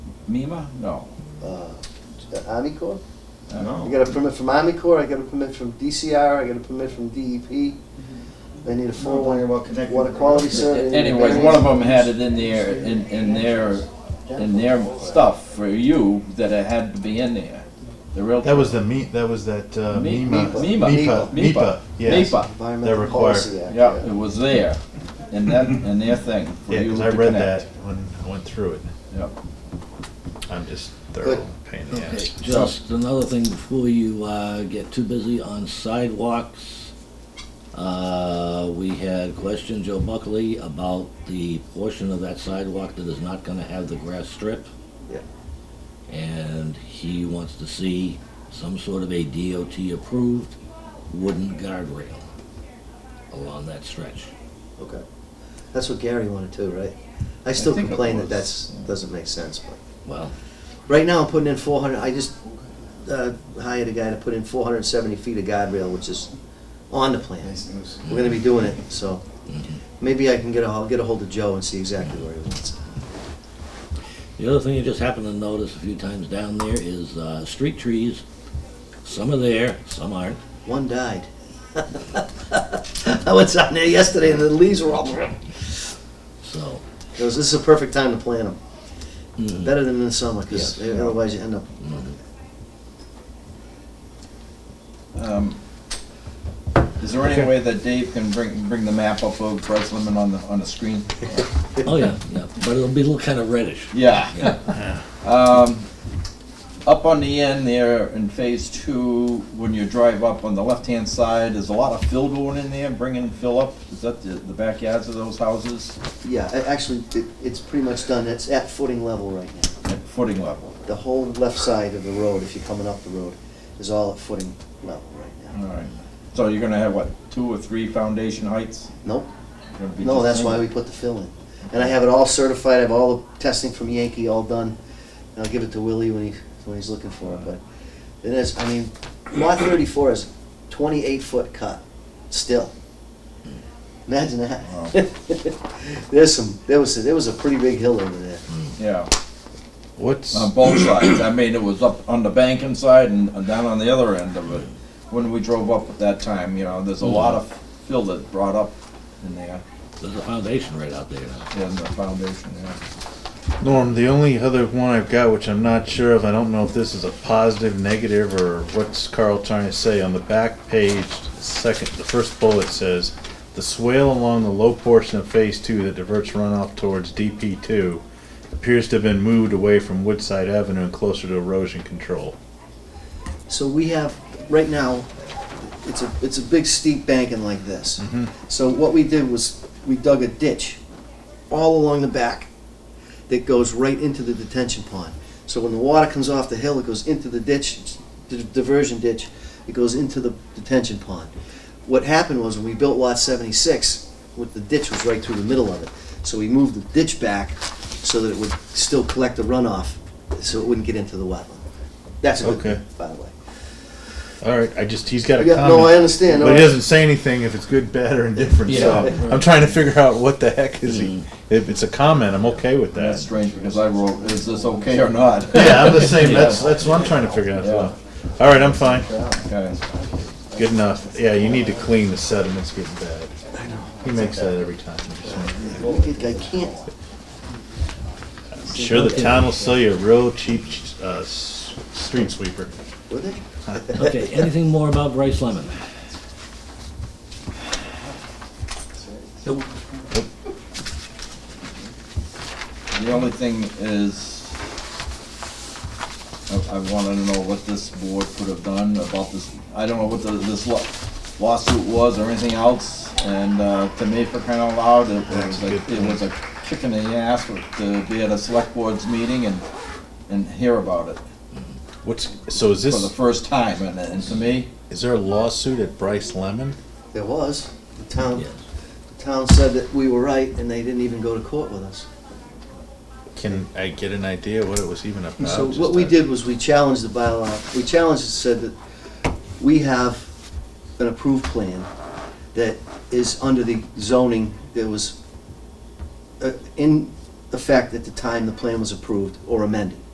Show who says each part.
Speaker 1: MEMA? No. Uh,
Speaker 2: uh, Army Corps. I
Speaker 1: No.
Speaker 2: got a permit from Army Corps, I got a permit from DCR, I got a permit from DEP. They need a full
Speaker 3: Talking
Speaker 2: one.
Speaker 3: about connecting
Speaker 2: Water
Speaker 3: the
Speaker 2: quality
Speaker 3: roads.
Speaker 2: survey.
Speaker 1: Anyways, one of them had it in their, in, in their, in their stuff for you that it had to be in there. The real.
Speaker 4: That was the me. That was that uh,
Speaker 1: Me-
Speaker 4: MEMA.
Speaker 1: Mima.
Speaker 4: MEPA.
Speaker 1: Mima.
Speaker 4: MEPA. Yes.
Speaker 1: MEPA.
Speaker 2: Environmental
Speaker 4: They're
Speaker 2: Policy Act.
Speaker 1: Yeah, it was there, in that, in their thing for
Speaker 4: Yeah,
Speaker 1: you
Speaker 4: 'cause
Speaker 1: to
Speaker 4: I read that
Speaker 1: connect.
Speaker 4: when I went through it.
Speaker 1: Yep.
Speaker 4: I'm just thorough pain in the
Speaker 5: Okay,
Speaker 4: ass.
Speaker 5: just another thing before you uh, get too busy on sidewalks. Uh, We had questioned Joe Buckley about the portion of that sidewalk that is not gonna have the grass strip.
Speaker 3: Yeah.
Speaker 5: And he wants to see some sort of a DOT-approved wooden guardrail along that stretch.
Speaker 2: Okay. That's what Gary wanted too, right? I still
Speaker 1: think it
Speaker 2: complain that
Speaker 1: was,
Speaker 2: that's, doesn't make sense, but.
Speaker 5: Well,
Speaker 2: Right now, I'm putting in four hundred, I just, uh, hired a guy to put in four hundred and seventy feet of guardrail, which is on the plan.
Speaker 3: Nice news.
Speaker 2: We're gonna be doing it, so maybe I can get a, I'll get a hold of Joe and see exactly where he wants it.
Speaker 5: The other thing you just happen to notice a few times down there is uh, street trees. Some are there, some aren't.
Speaker 2: One died. I went out there yesterday and the leaves were all, goes,
Speaker 5: So,
Speaker 2: this is a perfect time to plant them.
Speaker 5: mm,
Speaker 2: Better than in the summer,
Speaker 5: Yes.
Speaker 2: cause otherwise you end up,
Speaker 1: Um, Is there any way that Dave can bring, bring the map up of Breslin on the, on the screen?
Speaker 5: oh yeah, yeah, but it'll be a little kind of reddish.
Speaker 1: Yeah. Um, Up on the end there in phase two, when you drive up on the left-hand side, there's a lot of fill going in there, bringing fill up. Is that the, the backyards of those houses
Speaker 2: yeah, a- actually, it, it's pretty much done, it's at footing level right now.
Speaker 1: at footing level?
Speaker 2: The whole left side of the road, if you're coming up the road, is all at footing level right
Speaker 1: All
Speaker 2: now.
Speaker 1: right. So you're gonna have, what, two or three foundation heights?
Speaker 2: Nope,
Speaker 1: Gonna be
Speaker 2: no,
Speaker 1: just
Speaker 2: that's
Speaker 1: in-
Speaker 2: why we put the fill in. And I have it all certified, I have all the testing from Yankee all done. And I'll give it to Willie when he, when he's looking for it, but it is, I mean, lot thirty-four is twenty-eight foot cut, still. Imagine that. There's some, there was, there was a pretty big hill over there.
Speaker 1: Yeah,
Speaker 4: What's
Speaker 1: on both sides. I mean, it was up on the banking side and and down on the other end of it. When we drove up at that time, you know, there's a lot of fill that brought up in there,
Speaker 5: There's a foundation right out there now.
Speaker 1: in the foundation, yeah.
Speaker 4: Norm? The only other one I've got, which I'm not sure of, I don't know if this is a positive, negative, or what's Carl trying to say. On the back page, second, the first bullet says, "The swale along the low portion of Phase Two that diverts runoff towards DP Two appears to have been moved away from Woodside Avenue and closer to erosion control."
Speaker 2: So we have, right now, it's a, it's a big steep banking like this. So what we did was, we dug a ditch all along the back that goes right into the detention pond. So when the water comes off the hill, it goes into the ditch, it's the diversion ditch, it goes into the detention pond. What happened was, when we built lot seventy-six, with the ditch was right through the middle of it. So we moved the ditch back so that it would still collect the runoff, so it wouldn't get into the wetland. That's a good
Speaker 4: Okay.
Speaker 2: thing, by the way.
Speaker 4: All right, I just he's got a
Speaker 2: Yeah,
Speaker 4: comment.
Speaker 2: no, I understand.
Speaker 4: But he
Speaker 2: No, I-
Speaker 4: doesn't say anything if it's good, bad, or indifferent. so
Speaker 1: Yeah.
Speaker 4: I'm trying to figure out what the heck is he. If it's a comment, I'm okay with that.
Speaker 1: That's strange because I wrote, is this okay or not?
Speaker 4: yeah, I'm the same. That's that's what I'm trying to figure out. as well. All right, I'm fine.
Speaker 1: Okay.
Speaker 4: Good enough. Yeah, you need to clean the sediments. Getting bad. I know. He makes that every time. I'm just wondering.
Speaker 2: I can't.
Speaker 4: I'm sure the town will sell you a real cheap uh, s- street sweeper.
Speaker 2: Would they?
Speaker 5: Okay, anything more about Bryce Lemon?
Speaker 1: The only thing is, I, I wanted to know what this board could have done about this, I don't know what the, this law- lawsuit was or anything else, and, uh, to me, for crying out loud, it was
Speaker 4: That's a
Speaker 1: like,
Speaker 4: good
Speaker 1: it was a kick in the ass to be at a select board's meeting and, and hear about it
Speaker 4: What's so? Is
Speaker 1: for the
Speaker 4: this
Speaker 1: first time, and, and to me,
Speaker 4: is there a lawsuit at Bryce Lemon?
Speaker 2: There was. The town,
Speaker 5: Yes.
Speaker 2: the town said that we were right and they didn't even go to court with us.
Speaker 4: Can I get an idea what it was even about?
Speaker 2: So
Speaker 4: Just uh,
Speaker 2: what we
Speaker 4: a-
Speaker 2: did was we challenged the bylaw, we challenged it, said that we have an approved plan that is under the zoning that was uh, in effect at the time the plan was approved or amended.